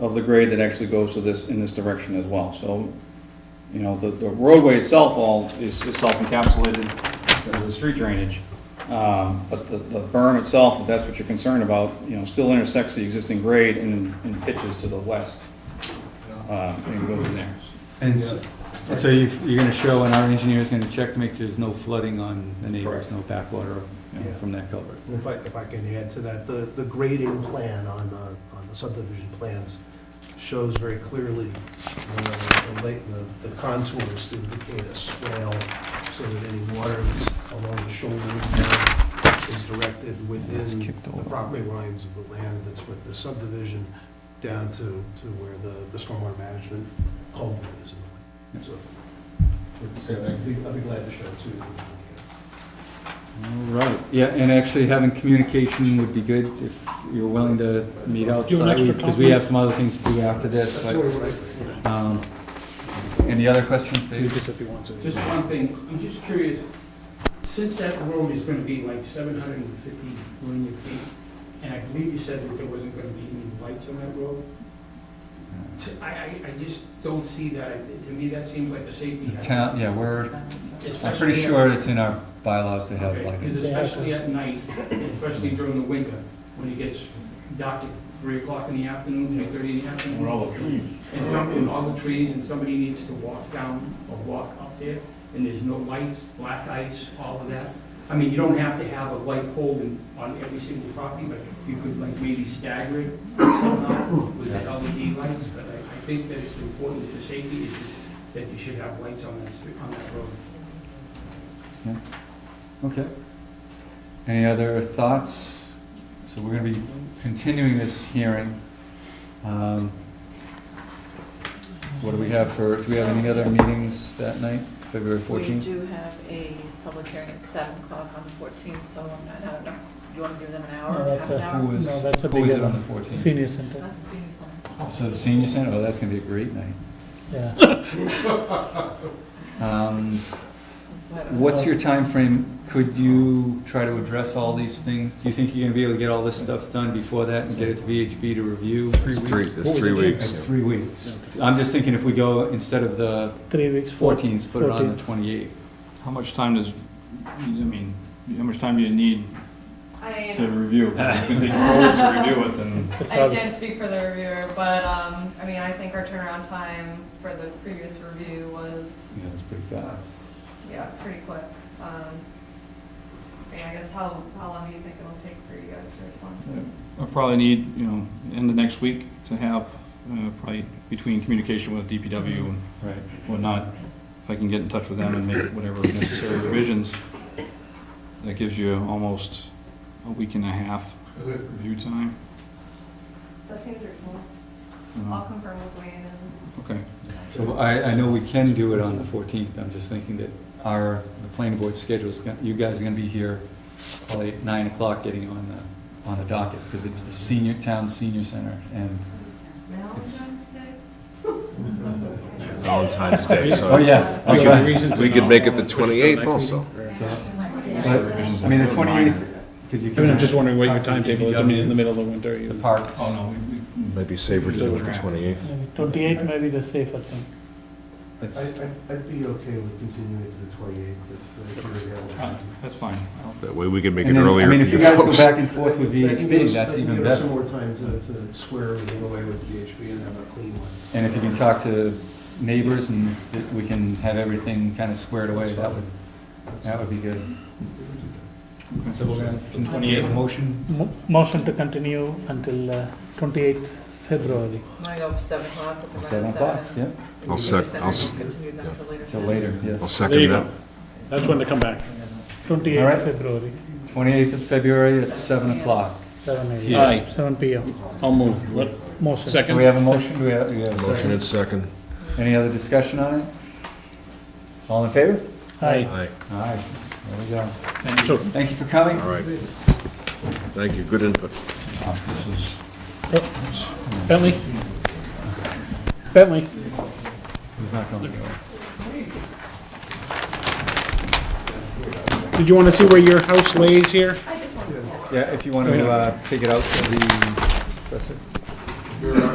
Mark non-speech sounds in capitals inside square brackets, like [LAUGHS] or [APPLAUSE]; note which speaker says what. Speaker 1: of the grade that actually goes to this, in this direction as well. So, you know, the, the roadway itself all is is self-encapsulated as a street drainage. Um, But the, the berm itself, if that's what you're concerned about, you know, still intersects the existing grade and, and pitches to the west. Uh, And goes in there.
Speaker 2: And s- so you you're gonna show, and our engineer's gonna check to make sure there's no flooding on the neighbors, no backwater you know,
Speaker 3: Yeah.
Speaker 2: from that culvert.
Speaker 3: If I, if I can add to that, the, the grading plan on the, on the subdivision plans shows very clearly uh, the, la- the the contours to indicate a swale so that any water that's along the shoulder of the road is directed within the property lines of the land that's with the subdivision down to, to where the, the stormwater management culvert is. in the land. So, I'd be I'd be glad to show it to you.
Speaker 2: All right, yeah, and actually having communication would be good if you're willing to meet outside, because we have some other things to do after this,
Speaker 3: That's
Speaker 2: but,
Speaker 3: sort of what I-
Speaker 2: um, any other questions, Dave?
Speaker 4: Just one thing, I'm just curious, since that road is gonna be like seven hundred and fifty linear feet, and I believe you said that there wasn't gonna be any lights on that road, t- I, I, I just don't see that, It- to me, that seems like a safety
Speaker 2: The
Speaker 4: hazard.
Speaker 2: Town, yeah, we're, I'm
Speaker 4: Especially
Speaker 2: pretty
Speaker 4: at-
Speaker 2: sure it's in our bylaws to have
Speaker 4: Okay,
Speaker 2: like,
Speaker 4: Because especially at night, especially during the winter, when it gets dark at three o'clock in the afternoon, three thirty in the afternoon.
Speaker 1: Where all the trees.
Speaker 4: and some, and all the trees, and somebody needs to walk down or walk up there, and there's no lights, black ice, all of that. I mean, you don't have to have a light pole in- on every single property, but you could like maybe stagger it somehow with the LED lights, but I, I think that it's important for safety issues that you should have lights on that, street- on that road.
Speaker 2: okay. Any other thoughts? So we're gonna be continuing this hearing. Um, What do we have for, do we have any other meetings that night, February
Speaker 5: We
Speaker 2: 14th?
Speaker 5: do have a public hearing at seven o'clock on the fourteenth, so I'm not, I don't know, you want to give them an hour,
Speaker 6: No,
Speaker 5: half
Speaker 6: that's
Speaker 5: an
Speaker 6: a-
Speaker 5: hour?
Speaker 2: Who is,
Speaker 6: No, that's a
Speaker 2: who is
Speaker 6: bigger
Speaker 2: it on the
Speaker 6: one.
Speaker 2: 14th?
Speaker 6: Senior center,
Speaker 5: That's the senior center.
Speaker 2: So the senior center, oh, that's gonna be a great night.
Speaker 6: yeah.
Speaker 2: Um,
Speaker 5: That's what I-
Speaker 2: What's your time frame? Could you try to address all these things? Do you think you're gonna be able to get all this stuff done before that and get it to VHB to review?
Speaker 7: It's three, it's
Speaker 6: What
Speaker 7: three
Speaker 6: was it again?
Speaker 2: It's
Speaker 7: weeks.
Speaker 2: three weeks. I'm just thinking if we go, instead of the
Speaker 6: Three weeks. four-
Speaker 2: 14th, put it on the 28th.
Speaker 8: How much time does, I mean, how much time do you need to
Speaker 9: I,
Speaker 7: [LAUGHS]
Speaker 8: review? If It's gonna take hours to review it, then.
Speaker 6: It's
Speaker 9: I
Speaker 6: all-
Speaker 9: can't speak for the reviewer, but, um, I mean, I think our turnaround time for the previous review was,
Speaker 2: Yeah, it's pretty fast.
Speaker 9: yeah, pretty quick. Um, I mean, I guess how, how long do you think it'll take for you guys to respond?
Speaker 8: I'll probably need, you know, in the next week to have, uh, probably between communication with DPW and
Speaker 2: Right.
Speaker 8: whatnot, if I can get in touch with them and make whatever necessary revisions, that gives you almost a week and a half review time.
Speaker 9: That seems reasonable.
Speaker 8: you
Speaker 6: Mm-hmm.
Speaker 8: know.
Speaker 9: I'll confirm with Wayne and,
Speaker 8: Okay,
Speaker 2: So I, I know we can do it on the 14th, I'm just thinking that our, the planning board schedule's, gon- you guys are gonna be here probably at 9 o'clock getting on the, on the docket, because it's the senior, town senior center, and, It's-
Speaker 9: Valentine's Day?
Speaker 7: Valentine's Day,
Speaker 2: oh,
Speaker 7: so
Speaker 2: yeah, that's right.
Speaker 7: we could make it the 28th also.
Speaker 2: So- but, I mean, the 28th, because you
Speaker 10: I
Speaker 2: can.
Speaker 10: mean, I'm just wondering what your timetable is, I mean, in the
Speaker 2: DPW,
Speaker 10: middle of the winter, you.
Speaker 2: The parks.
Speaker 8: oh, no, we- we-
Speaker 7: Maybe safer to do it the 28th.
Speaker 6: Maybe Twenty-eight may be the safer thing.
Speaker 2: It's-
Speaker 3: I- I'd, I'd be okay with continuing to the twenty-eighth if uh, you're
Speaker 8: uh,
Speaker 3: available.
Speaker 8: that's fine. I'll-
Speaker 7: That way we can make it
Speaker 2: And then, I
Speaker 7: earlier.
Speaker 2: mean,
Speaker 7: for
Speaker 2: if you guys go
Speaker 7: folks.
Speaker 2: back and forth with
Speaker 3: That can give
Speaker 2: VHB,
Speaker 3: us-
Speaker 2: that's
Speaker 3: that can
Speaker 2: even
Speaker 3: give us
Speaker 2: better.
Speaker 3: Some more time to, to square everything away with VHB and have a clean one.
Speaker 2: And if you can talk to neighbors and that we can have everything kind of squared away, that would, that would be good.
Speaker 8: Okay.
Speaker 2: So we're gonna continue the motion.
Speaker 6: Mo- Motion to continue until twenty-eighth February.
Speaker 5: Might go for seven o'clock, put them on
Speaker 2: Seven o'clock, yeah,
Speaker 7: I'll sec- I'll s-
Speaker 5: Continue them till later.
Speaker 2: till later,
Speaker 7: I'll
Speaker 2: yes.
Speaker 10: There you
Speaker 7: second that.
Speaker 10: go. That's when they come back.
Speaker 2: All
Speaker 6: Twenty-eighth
Speaker 2: right.
Speaker 6: February,
Speaker 2: Twenty-eighth of February at seven o'clock.
Speaker 6: seven
Speaker 10: Here. Aye.
Speaker 6: AM. Seven PM.
Speaker 10: I'll move. What-
Speaker 6: Motion.
Speaker 10: Second.
Speaker 2: So we have a motion, do we have, do we have a
Speaker 7: Motion
Speaker 2: second?
Speaker 7: is second.
Speaker 2: Any other discussion on it? All in favor?
Speaker 6: Aye.
Speaker 7: Aye.
Speaker 2: All right, there we go.
Speaker 10: So
Speaker 2: Thank you for coming.
Speaker 7: All right. Thank you, good input.
Speaker 2: Oh, This is,
Speaker 6: Bentley? Bentley?
Speaker 2: he's not going to go.
Speaker 10: Did you want to see where your house lays here?
Speaker 9: I just wanted to.
Speaker 2: Yeah, if you want to, uh, take it out to the assessor.
Speaker 3: You're,